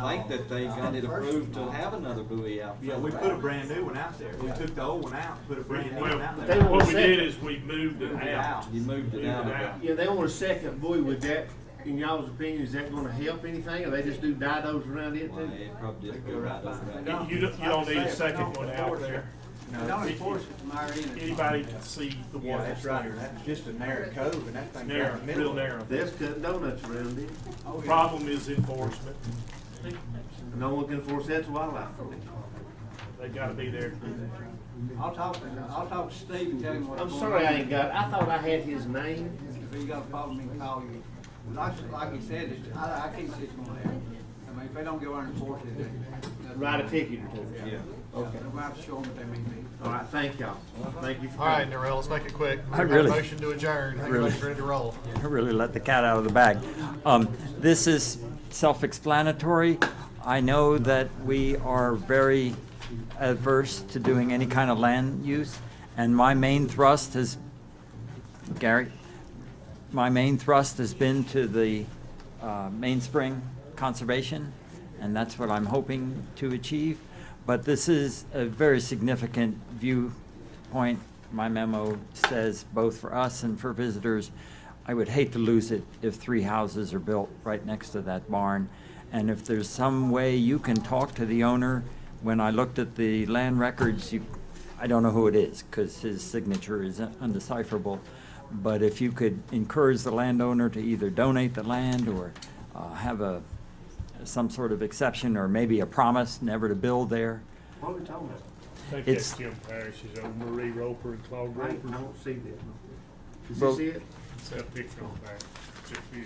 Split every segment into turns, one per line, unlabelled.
think that they got it approved to have another buoy out.
Yeah, we put a brand new one out there. We took the old one out, and put a brand new one out
Well,
there.
they
won't
what we
accept
did
it.
is we moved it
Moved it
out.
out.
You moved it out. about-
Yeah, they want a second buoy with that, in y'all's opinion, is that gonna help anything, or they just do didos around it
Well,
too?
Uh, it probably just go right over
You-
that.
You don't, you don't need a second one out there.
No,
Don't
it's-
enforce it from our end.
Anybody can see the
Yeah,
one
that's
that's
right.
there.
That's just a narrow cove and that thing
Narrow,
right in the
real
middle.
narrow.
That's cutting donuts around it,
Oh, yeah.
Problem is enforcement.
and no one can enforce that to wildlife.
They gotta be there to do that.
I'll talk to, I'll talk to Steve and tell him what's
I'm
going on.
sorry I ain't got, I thought I had his name.
If you got a problem, he can call you. Like, like he said, it's, I, I can't see it's gonna happen. I mean, if they don't go out and enforce it, they.
Write a ticket or two.
Yeah.
Okay. We'll have to show them what they mean to do.
All right, thank y'all. Thank you for
All right,
coming.
Darrell, let's make it quick. We've got a
really-
Motion to adjourn. Everybody's ready to roll.
I really let the cat out of the bag. Um, this is self-explanatory. I know that we are very adverse to doing any kind of land use, and my main thrust has, Gary, my main thrust has been to the uh, mainspring conservation, and that's what I'm hoping to achieve. But this is a very significant viewpoint. My memo says both for us and for visitors. I would hate to lose it if three houses are built right next to that barn. And if there's some way you can talk to the owner, when I looked at the land records, you, I don't know who it is because his signature is undecipherable. But if you could encourage the landowner to either donate the land or uh, have a, some sort of exception or maybe a promise never to build there.
What are we talking about?
Think
It's-
that's Jim Parrish, is on Marie Roper and Claude
I ain't-
Roper.
I don't see that. Is
Well-
this it?
It's that picture on there. It's a few.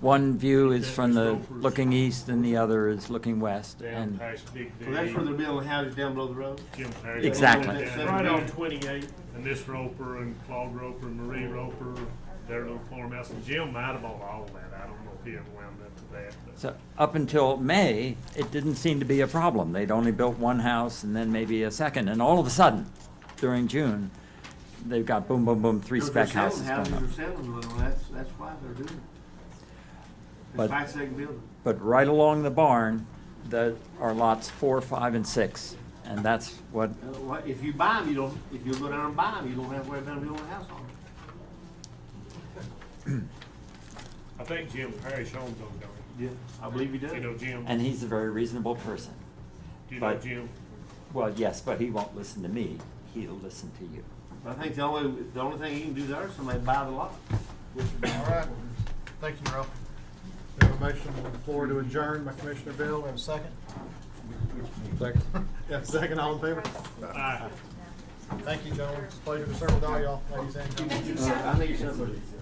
One view is from the looking east and the other is looking west.
Down
And
past Big D.
So that's where they're building houses down below the road?
Jim Parrish.
Exactly.
Yeah, Right on twenty-eight, and this Roper and Claude Roper and Marie Roper, their little farmhouse, and Jim might have bought all that. I don't know if he ever wound up to that, but.
so up until May, it didn't seem to be a problem. They'd only built one house and then maybe a second. And all of a sudden, during June, they've got boom, boom, boom, three
Because they're
spec houses
selling
going up.
Houses are selling little, that's, that's why they're doing it.
But-
It's five second building.
But right along the barn, that are lots four, five, and six, and that's what,
Uh, what- If you buy them, you don't, if you go down and buy them, you don't have to worry about them building a house on them.
I think Jim Parrish owns them, don't
Yeah. I believe you do.
he? You know Jim,
and he's a very reasonable person.
you know
but-
Jim? Well,
Well, yes, but he won't listen to me, he'll listen to you.
I think the only, the only thing you can do there is somebody buy the lot.
All right. Thank you, Darrell. We have a motion on the floor to adjourn by Commissioner Bill. We have a second. Second. Yeah, second, all in favor?
Aye.
Thank you, gentlemen. It's a pleasure to serve with all y'all, ladies and gentlemen.
I think it's something.